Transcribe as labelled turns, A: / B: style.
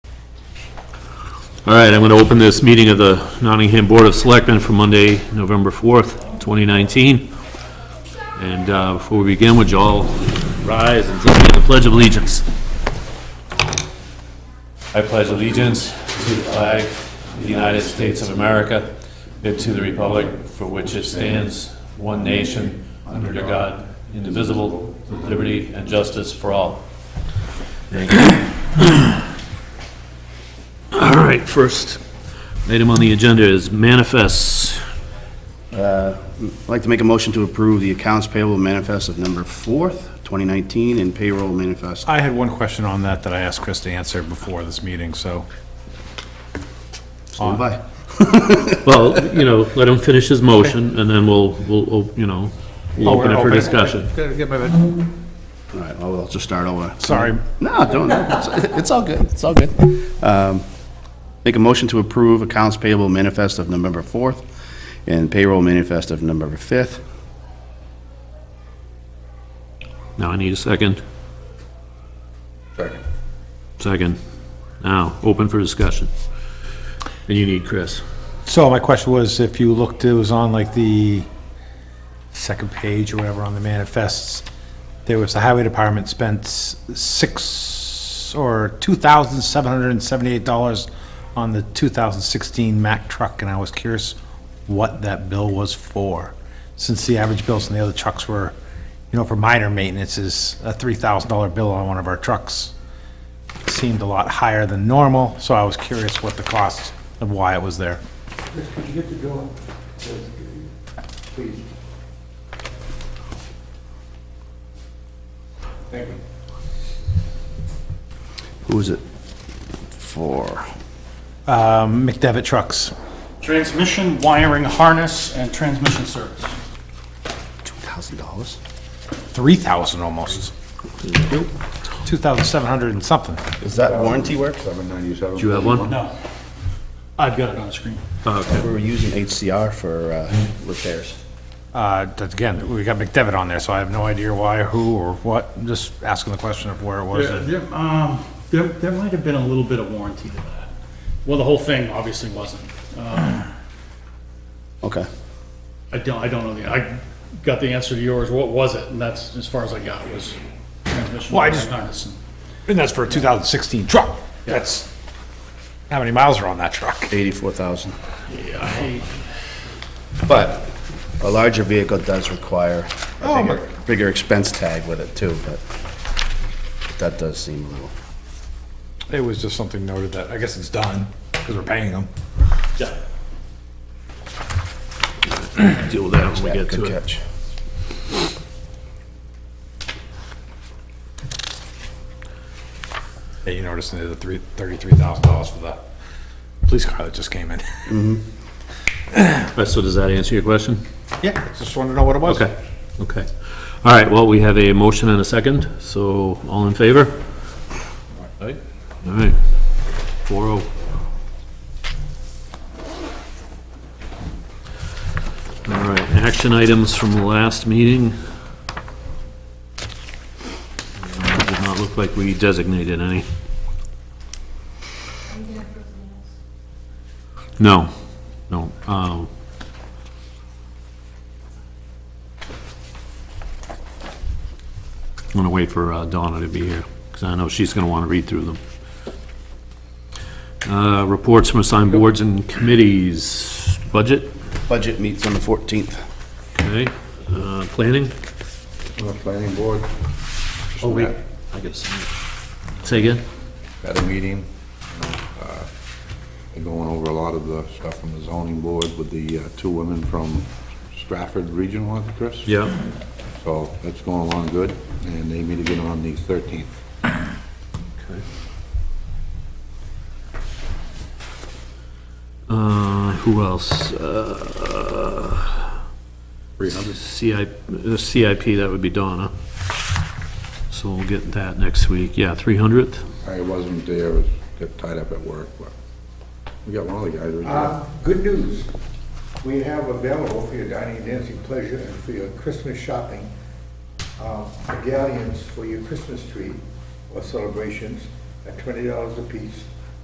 A: All right, I'm going to open this meeting of the Nottingham Board of Selectmen for Monday, November 4th, 2019. And uh, before we begin, would you all rise and join me in the Pledge of Allegiance? I pledge allegiance to the flag of the United States of America and to the republic for which it stands, one nation, under God, indivisible, with liberty and justice for all. All right, first item on the agenda is manifests.
B: I'd like to make a motion to approve the accounts payable manifest of number 4th, 2019, and payroll manifest.
C: I had one question on that that I asked Chris to answer before this meeting, so.
B: Stand by.
A: Well, you know, let him finish his motion, and then we'll, we'll, you know, we'll open it for discussion.
C: Gotta get my bit-
B: All right, well, I'll just start over.
C: Sorry,
B: No, don't, it's it's all good, it's all good. Um, Make a motion to approve accounts payable manifest of November 4th and payroll manifest of November 5th.
A: Now I need a second. Second. Second. Now, open for discussion. And you need Chris.
C: so my question was, if you looked, it was on like the second page or whatever on the manifests, there was the highway department spent s- six, or two thousand seven hundred and seventy-eight dollars on the two thousand sixteen Mack truck, and I was curious what that bill was for, since the average bills on the other trucks were, you know, for minor maintenance is a three thousand dollar bill on one of our trucks. Seemed a lot higher than normal, so I was curious what the cost and why it was there.
D: Could you get the bill? Please. Thank you.
B: Who is it for?
C: Um, McDevitt trucks.
E: Transmission, wiring, harness, and transmission service.
B: $2,000?
C: 3,000 almost. 2,700 and something.
B: Is that warranty work?
A: Do you have one?
E: No. I've got it on the screen.
B: We were using HCR for uh, repairs.
C: Uh, that's Again, we got McDevitt on there, so I have no idea why, who, or what. I'm Just asking the question of where it was.
E: There, there, um, there, there might have been a little bit of warranty to that. Well, the whole thing obviously wasn't.
B: Okay.
E: I don't, I don't know the, I got the answer to yours, what was it? And that's as far as I got was transmission,
C: Well, I
E: wiring,
C: just-
E: harness. and-
C: And that's for a 2016 truck. That's, how many miles are on that truck?
B: 84,000.
E: Yeah, I-
B: But a larger vehicle does require
C: Oh,
B: a bigger, bigger expense tag with it too, but that does seem a little,
C: It was just something noted that, I guess it's done, because we're paying them.
E: yeah.
A: Deal with that when we
B: yeah,
A: get to
B: good
A: it.
B: catch.
C: Yeah, you noticed they did the three- $33,000 for the police car that just came in.
A: All right, so does that answer your question?
C: Yeah, just wanted to know what it was.
A: Okay, okay. All right, well, we have a motion and a second, so all in favor? Aye. All right, four oh. All right, action items from the last meeting. Uh, Did not look like we designated any. No, no. um, I'm gonna wait for uh, Donna to be here, because I know she's gonna want to read through them. Uh, Reports from assigned boards and committees, budget,
B: Budget meets on the 14th.
A: okay, Uh, planning?
D: On the planning board.
A: Oh, wait. I gotta sign it. Say again?
D: At a meeting, you know, uh, they're going over a lot of the stuff from the zoning board with the uh, two women from Stratford Regional, I think, Chris?
A: Yeah.
D: So that's going along good, and they meet again on the 13th.
A: Uh, Who else? CIP, uh, CIP, that would be Donna. So we'll get that next week, yeah, 300th?
D: I wasn't there, I was- got tied up at work, but we got one of the guys. we got-
F: Uh, Good news. We have available for your dining, dancing pleasure, and for your Christmas shopping, uh, medallions for your Christmas tree or celebrations at twenty dollars apiece